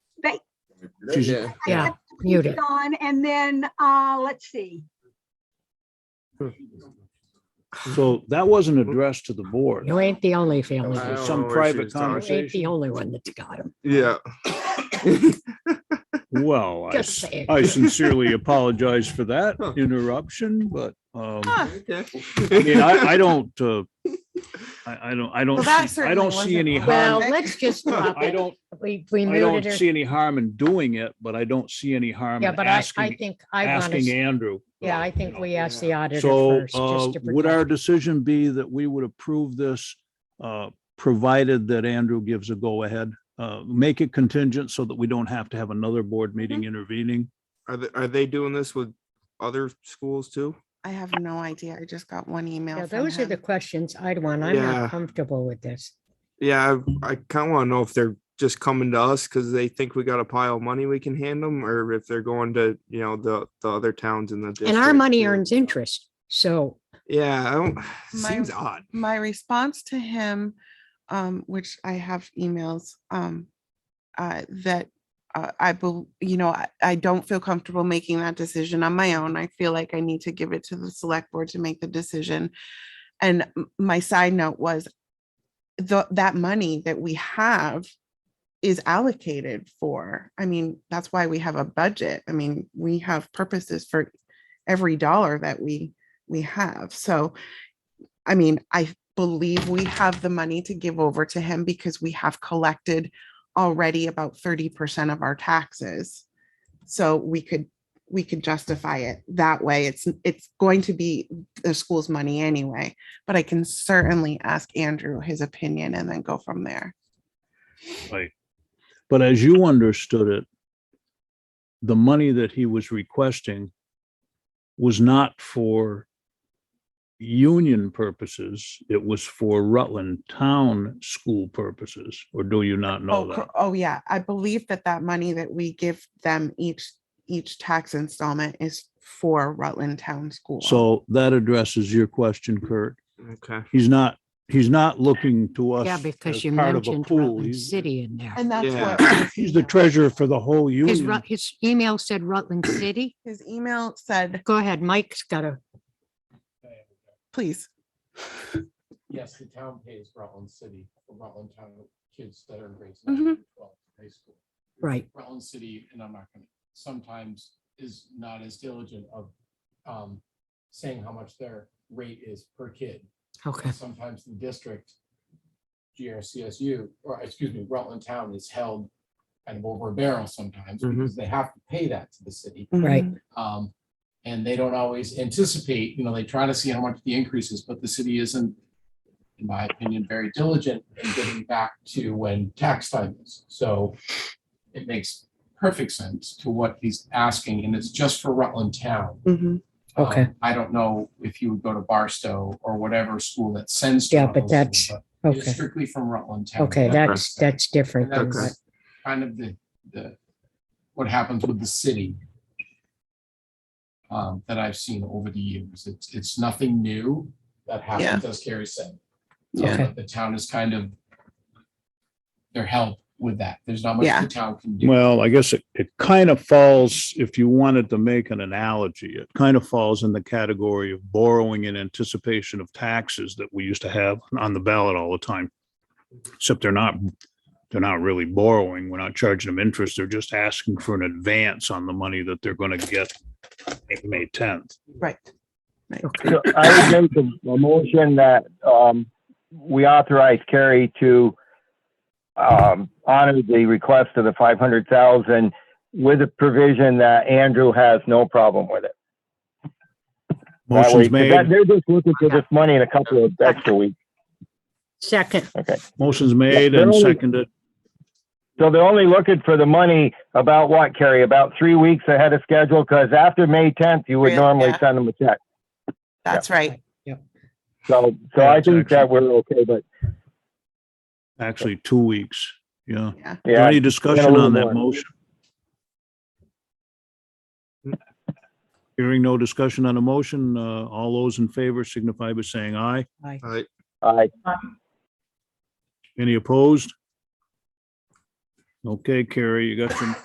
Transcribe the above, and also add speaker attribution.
Speaker 1: She's-
Speaker 2: Yeah.
Speaker 3: Yeah,
Speaker 1: Yeah.
Speaker 3: mute it.
Speaker 4: On, and then, uh, let's see.
Speaker 1: So that wasn't addressed to the board.
Speaker 3: You ain't the only family.
Speaker 2: Oh, I don't
Speaker 1: Some
Speaker 2: know where she
Speaker 1: private
Speaker 2: was
Speaker 3: You
Speaker 2: talking.
Speaker 3: ain't the
Speaker 1: conversation.
Speaker 3: only one that's got him.
Speaker 2: Yeah.
Speaker 1: Well, Oh, I
Speaker 3: Just
Speaker 1: s-
Speaker 3: saying.
Speaker 1: I sincerely apologize for that interruption, but um, I mean, I, I don't, uh, I, I don't, I don't,
Speaker 5: Well, that
Speaker 1: see- I don't
Speaker 5: certainly
Speaker 1: see any
Speaker 5: wasn't well-
Speaker 3: Well, uh,
Speaker 1: harm.
Speaker 3: let's just drop
Speaker 1: I
Speaker 3: it.
Speaker 1: don't,
Speaker 3: We, we
Speaker 1: I
Speaker 3: muted
Speaker 1: don't
Speaker 3: her.
Speaker 1: see any harm in doing it, but I don't see any harm
Speaker 3: Yeah,
Speaker 1: in
Speaker 3: but I, I
Speaker 1: asking,
Speaker 3: think I want
Speaker 1: asking
Speaker 3: to,
Speaker 1: Andrew.
Speaker 3: yeah, I think we asked the auditor
Speaker 1: So
Speaker 3: first.
Speaker 1: uh,
Speaker 3: just to
Speaker 1: would
Speaker 3: protect-
Speaker 1: our decision be that we would approve this, uh, provided that Andrew gives a go-ahead? Uh, Make it contingent so that we don't have to have another
Speaker 3: Mm-hmm.
Speaker 1: board meeting intervening?
Speaker 2: Are they, are they doing this with other schools too?
Speaker 5: I have no idea. I just got one
Speaker 3: Yeah,
Speaker 5: email from
Speaker 3: those are the
Speaker 5: him.
Speaker 3: questions I'd want. I'm
Speaker 2: Yeah.
Speaker 3: not comfortable with this.
Speaker 2: Yeah, I, I kind of want to know if they're just coming to us because they think we got a pile of money we can hand them, or if they're going to, you know, the the other towns in the.
Speaker 3: And our
Speaker 2: district
Speaker 3: money
Speaker 2: or-
Speaker 3: earns interest. So
Speaker 2: Yeah, I don't.
Speaker 5: My-
Speaker 2: Seems odd.
Speaker 5: My response to him, um, which I have emails, um, uh, that uh, I, bel- you know, I, I don't feel comfortable making that decision on my own. I feel like I need to give it to the select board to make the decision. And m- my side note was the, that money that we have is allocated for, I mean, that's why we have a budget. I mean, we have purposes for every dollar that we, we have. So, I mean, I believe we have the money to give over to him because we have collected already about thirty percent of our taxes. So we could, we could justify it that way. It's, it's going to be the school's money anyway. But I can certainly ask Andrew his opinion and then go from there.
Speaker 1: But as you understood it, the money that he was requesting was not for union purposes. It was for Rutland Town school purposes, or do you not know
Speaker 5: Oh,
Speaker 1: that?
Speaker 5: cor- oh, yeah. I believe that that money that we give them each, each tax installment is for Rutland Town School.
Speaker 1: So that addresses your question, Kurt.
Speaker 2: Okay.
Speaker 1: He's not, he's not looking to us.
Speaker 3: Yeah,
Speaker 1: as
Speaker 3: because you
Speaker 1: part of a
Speaker 3: mentioned
Speaker 1: pool.
Speaker 3: Rutland
Speaker 1: He's-
Speaker 3: City in there.
Speaker 5: And that's
Speaker 2: Yeah.
Speaker 5: what. his
Speaker 1: He's the
Speaker 5: email-
Speaker 1: treasurer for the whole
Speaker 3: His,
Speaker 1: union.
Speaker 3: Rut- his email said Rutland City.
Speaker 5: His email said,
Speaker 3: Go ahead, Mike's got a,
Speaker 5: please.
Speaker 6: Yes, the town pays Rutland City, for Rutland Town kids that are in grades
Speaker 5: Mhm.
Speaker 6: nine through twelve in high school.
Speaker 3: Mm-hmm. right.
Speaker 6: Rutland City, and I'm not gonna, sometimes is not as diligent of um saying how much their rate is per kid.
Speaker 3: Okay.
Speaker 6: And Sometimes the district, GRCSU, or excuse me, Rutland Town is held kind of over a barrel sometimes
Speaker 3: Mm-hmm.
Speaker 2: Mhm.
Speaker 6: because they have to pay that to the city.
Speaker 3: Right.
Speaker 5: Mhm.
Speaker 6: Um, and they don't always anticipate, you know, they try to see how much the increase is, but the city isn't, in my opinion, very diligent in getting back to when tax time is. So it makes perfect sense to what he's asking, and it's just for Rutland Town.
Speaker 5: Mhm.
Speaker 6: Um,
Speaker 3: Okay.
Speaker 6: I don't know if you would go to Barstow or whatever school that sends. to
Speaker 3: Yeah, but
Speaker 6: Rutland City,
Speaker 3: that's-
Speaker 6: but it's
Speaker 3: Okay.
Speaker 6: Strictly from Rutland Town.
Speaker 3: Okay, that's,
Speaker 6: that's.
Speaker 3: that's different. than
Speaker 6: And
Speaker 3: what-
Speaker 6: that's kind of the, the, what happens with the city um, that I've seen over the years. It's, it's nothing new that happens, as Carrie said.
Speaker 5: Yeah.
Speaker 6: Uh, The town is kind of their help with that. There's not much
Speaker 5: Yeah.
Speaker 6: the town can do.
Speaker 1: Well, I guess it, it kind of falls, if you wanted to make an analogy, it kind of falls in the category of borrowing in anticipation of taxes that we used to have on the ballot all the time. Except they're not, they're not really borrowing. We're not charging them interest. They're just asking for an advance on the money that they're going to get May tenth.
Speaker 5: Right. Right.
Speaker 3: Okay.
Speaker 7: So I would make a, a motion that, um, we authorize Kerry to, um, honor the request of the five hundred thousand with a provision that Andrew has no problem with it. That way-
Speaker 1: Motion's
Speaker 7: 'cause that-
Speaker 1: made,
Speaker 7: They're just looking for this money in a couple of extra weeks.
Speaker 3: Second,
Speaker 1: motion's made
Speaker 7: they're
Speaker 1: and
Speaker 7: only-
Speaker 1: seconded.
Speaker 7: So they're only looking for the money about what, Kerry? About three weeks ahead of schedule? Cause after May tenth, you would
Speaker 5: Yeah.
Speaker 7: normally send them a check.
Speaker 5: That's right.
Speaker 7: So, so
Speaker 1: Yeah,
Speaker 7: I
Speaker 1: it's
Speaker 7: think that
Speaker 1: actually-
Speaker 7: we're okay, but
Speaker 1: Actually, two weeks. Yeah.
Speaker 5: Yeah.
Speaker 1: Is there
Speaker 7: yeah,
Speaker 1: Any discussion
Speaker 7: little
Speaker 1: on that
Speaker 7: more.
Speaker 1: motion? Hearing no discussion on a motion, uh, all those in favor signify by saying aye.
Speaker 2: I
Speaker 7: I,
Speaker 1: Any opposed? Okay, Carrie, you got your